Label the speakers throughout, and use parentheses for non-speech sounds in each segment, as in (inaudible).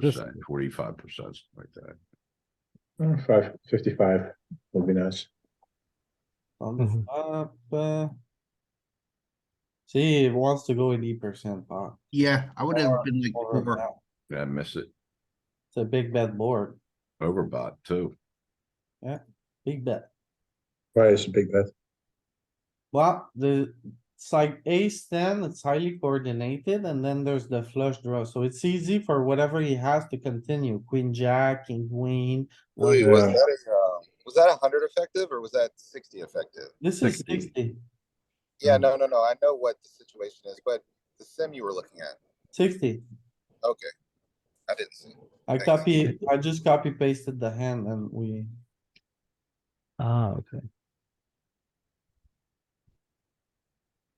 Speaker 1: percent,
Speaker 2: Just-
Speaker 1: forty-five percent, something like that.
Speaker 3: Uh, Five fifty-five would be nice.
Speaker 4: On the
Speaker 2: Mhm.
Speaker 4: flop, uh. See, it wants to go eighty percent pot.
Speaker 5: Yeah, I would have
Speaker 4: Or-
Speaker 5: been like
Speaker 4: or
Speaker 5: four.
Speaker 4: down.
Speaker 1: Yeah, I miss it,
Speaker 4: It's a big bet board,
Speaker 1: overbought too.
Speaker 4: big bet.
Speaker 3: Why is a big bet?
Speaker 4: Well, the, it's like ace ten, it's highly coordinated, and then there's the flush draw, so it's easy for whatever he has to continue, queen, jack, king, queen.
Speaker 5: Oh,
Speaker 4: one-
Speaker 6: Louis, was
Speaker 3: Yeah.
Speaker 6: that a, uh, was that hundred effective or was that sixty effective?
Speaker 4: This is
Speaker 1: 60.
Speaker 4: sixty.
Speaker 6: Yeah,
Speaker 5: Mm.
Speaker 6: no, no, no, I know what the situation is, but the sim you were looking at,
Speaker 4: 60.
Speaker 6: okay. I didn't see.
Speaker 4: I
Speaker 6: Thanks.
Speaker 4: copy, I just copy pasted the hand and we,
Speaker 2: Ah, okay.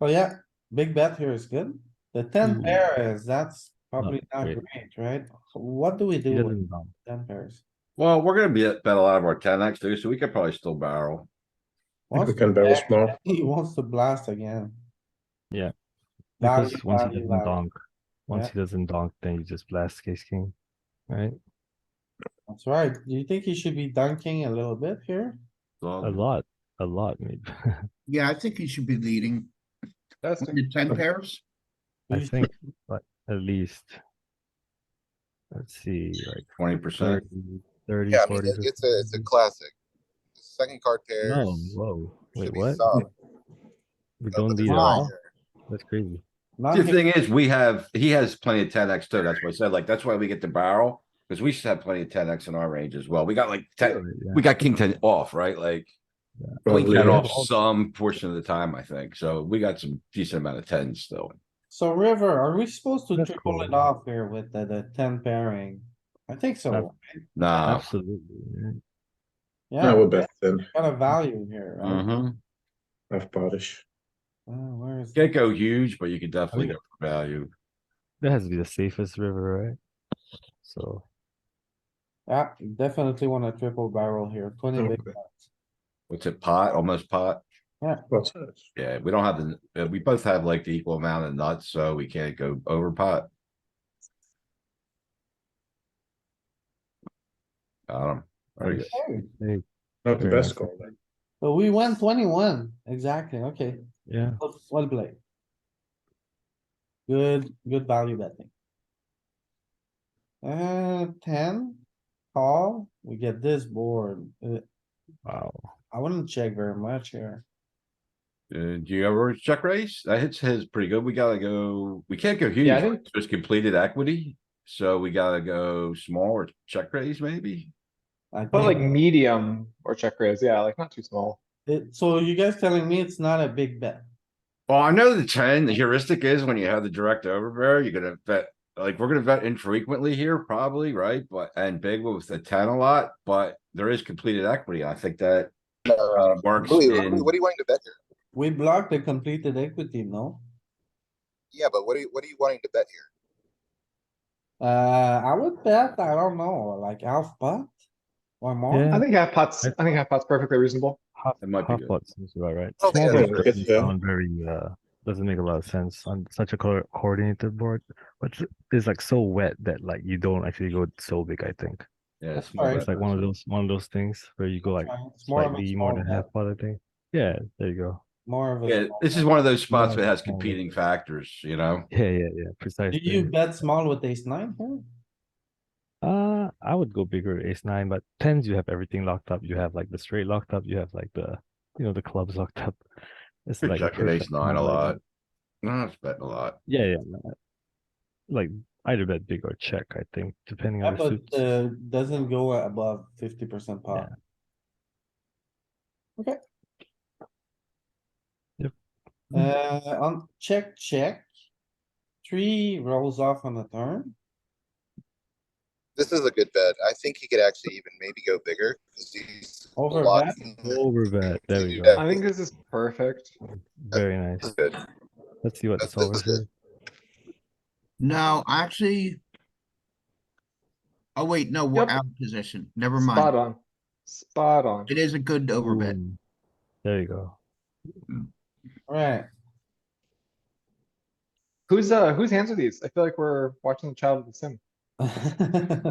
Speaker 4: oh yeah, big bet here is good. The ten
Speaker 2: Mm.
Speaker 4: pair is, that's probably not
Speaker 2: great.
Speaker 4: great, right? What do we
Speaker 2: He
Speaker 4: do with
Speaker 2: doesn't bump.
Speaker 4: ten pairs?
Speaker 1: Well, we're gonna be at, bet a lot of our ten X too, so we could probably still barrel.
Speaker 3: I think
Speaker 4: Wants
Speaker 3: we
Speaker 4: to
Speaker 3: can barrel
Speaker 4: blast-
Speaker 3: small.
Speaker 4: (laughs) He wants to blast again.
Speaker 2: Yeah.
Speaker 4: Value,
Speaker 2: Because once he
Speaker 4: value,
Speaker 2: doesn't
Speaker 4: value.
Speaker 2: donk, once
Speaker 4: Yeah.
Speaker 2: he doesn't donk, then you just blast case king, right?
Speaker 4: That's right. Do you think he should be dunking a little bit here?
Speaker 2: A
Speaker 1: So,
Speaker 2: lot, a lot,
Speaker 4: (laughs)
Speaker 2: maybe.
Speaker 5: Yeah, I think you should be leading
Speaker 3: That's.
Speaker 5: When you're ten pairs.
Speaker 2: I
Speaker 4: You-
Speaker 2: think, but at least. Let's see, like
Speaker 1: twenty percent,
Speaker 2: 30, 30,
Speaker 6: Yeah, I mean,
Speaker 2: 40.
Speaker 6: it- it's a, it's a classic. Second card pairs.
Speaker 2: No, whoa, wait,
Speaker 6: should be
Speaker 2: what?
Speaker 6: solid.
Speaker 2: We
Speaker 6: That's what
Speaker 2: don't
Speaker 6: the
Speaker 2: lead at
Speaker 5: line
Speaker 2: all?
Speaker 6: here.
Speaker 2: That's crazy.
Speaker 1: the
Speaker 4: Dunking,
Speaker 1: thing is, we have, he has plenty of ten X too, that's what I said, like, that's why we get to barrel. Cause we should have plenty of ten X in our range as well, we got like ten,
Speaker 2: Really, yeah.
Speaker 1: we got king ten off, right, like. Queen
Speaker 3: Probably,
Speaker 1: ten
Speaker 2: Oh, yeah.
Speaker 1: off some portion of the time, I think, so we got some decent amount of tens still.
Speaker 4: so river, are we supposed to
Speaker 2: That's
Speaker 4: triple
Speaker 2: cool.
Speaker 4: it off here with the, the ten pairing? I think so.
Speaker 1: Nah.
Speaker 2: Absolutely. yeah.
Speaker 3: I
Speaker 4: Yeah,
Speaker 3: would bet then,
Speaker 4: got a value here, right?
Speaker 1: Mhm.
Speaker 3: half partish.
Speaker 4: Uh, where is?
Speaker 1: Can't go huge, but you could definitely
Speaker 2: mean-
Speaker 1: go for value.
Speaker 2: That has to be the safest river, right? So,
Speaker 4: Yeah, you definitely want a triple barrel here, twenty big
Speaker 3: Okay.
Speaker 4: blinds.
Speaker 1: What's it, pot, almost pot?
Speaker 3: What's
Speaker 1: Yeah, we don't have the, uh, we both have like the equal amount of nuts, so we can't go over pot. Got him. Very good.
Speaker 4: Okay,
Speaker 2: hey,
Speaker 3: not the
Speaker 2: Very
Speaker 3: best
Speaker 2: nice.
Speaker 3: call then?
Speaker 4: So we went twenty-one, exactly, okay,
Speaker 2: yeah,
Speaker 4: well- well played. Good, good value betting. Uh, ten, call, we get this board, Uh,
Speaker 2: wow.
Speaker 4: I wouldn't check very much here.
Speaker 1: Uh, do you ever check raise? That hits his pretty good. We gotta go, we can't go huge.
Speaker 4: Yeah, I
Speaker 1: right? So It's completed equity, so we gotta go small or check raise maybe?
Speaker 4: I
Speaker 7: But like
Speaker 4: think.
Speaker 7: medium or check raise, yeah, like not too small.
Speaker 4: It- so you guys telling me it's not a big bet?
Speaker 1: Well, I know the ten the heuristic is when you have the direct overbear, you're gonna bet, like, we're gonna bet infrequently here, probably, right? But, and big with the ten a lot, but there is completed equity. I think that
Speaker 6: No, uh,
Speaker 1: uh, works
Speaker 6: Louis, what do
Speaker 1: in,
Speaker 6: you- what do you wanting to bet here?
Speaker 4: We blocked the completed equity, no?
Speaker 6: Yeah, but what are you, what are you wanting to bet here?
Speaker 4: Uh, I would bet, I don't know, like half pot? One
Speaker 2: Yeah.
Speaker 4: more?
Speaker 7: I think half pots, I think half pots perfectly reasonable.
Speaker 2: Half,
Speaker 1: It might be
Speaker 2: half
Speaker 1: good.
Speaker 2: pot seems about right.
Speaker 6: Oh,
Speaker 2: Small
Speaker 6: yeah,
Speaker 2: board
Speaker 3: that's
Speaker 2: doesn't
Speaker 3: good, yeah.
Speaker 2: sound very, uh, doesn't make a lot of sense on such a co- coordinated board. But it's- it's like so wet that like you don't actually go so big, I think.
Speaker 1: yeah.
Speaker 4: That's
Speaker 1: small
Speaker 4: fine.
Speaker 1: bet.
Speaker 2: It's like one of those, one of those things where you go like
Speaker 4: It's more of a
Speaker 2: slightly more
Speaker 4: small
Speaker 2: than
Speaker 4: bet,
Speaker 2: half pot, I think. Yeah, there you go.
Speaker 4: more of a.
Speaker 1: Yeah,
Speaker 4: small
Speaker 1: this
Speaker 4: bet.
Speaker 1: is one of those spots that has
Speaker 2: small bet.
Speaker 1: competing factors, you know?
Speaker 2: Yeah, yeah, yeah,
Speaker 4: Do
Speaker 2: precisely.
Speaker 4: you bet small with ace nine here?
Speaker 2: Uh, I would go bigger ace nine, but tens you have everything locked up. You have like the straight locked up. You have like the, you know, the clubs locked up. It's
Speaker 1: You're
Speaker 2: like
Speaker 1: checking ace
Speaker 2: perfect
Speaker 1: nine a
Speaker 2: combo, I
Speaker 1: lot.
Speaker 2: think.
Speaker 1: No, it's betting a lot.
Speaker 2: Yeah, yeah. no, Like either bet big or check. I think depending
Speaker 4: Yeah,
Speaker 2: on the
Speaker 4: but
Speaker 2: suits.
Speaker 4: uh, doesn't go above fifty percent pot. Okay.
Speaker 2: Yep.
Speaker 4: Uh, on check, check. Three rolls off on the turn.
Speaker 6: This is a good bet. I think he could actually even maybe go bigger. 'cause he's
Speaker 4: Over
Speaker 6: blocking.
Speaker 2: Over bet. There we
Speaker 6: you
Speaker 2: go.
Speaker 6: bet.
Speaker 7: I think this is perfect.
Speaker 2: Very nice.
Speaker 6: Good.
Speaker 2: Let's see what the
Speaker 6: That's- that's
Speaker 2: solver says.
Speaker 5: No, actually. Oh, wait, no, we're
Speaker 7: Yep.
Speaker 5: out of position. Never
Speaker 7: Spot
Speaker 5: mind.
Speaker 7: on. Spot on.
Speaker 5: It is a good overbet.
Speaker 2: Boom. There you go.
Speaker 4: Right,
Speaker 7: Who's, uh, whose hands are these? I feel like we're watching the child of the sim.
Speaker 4: bet.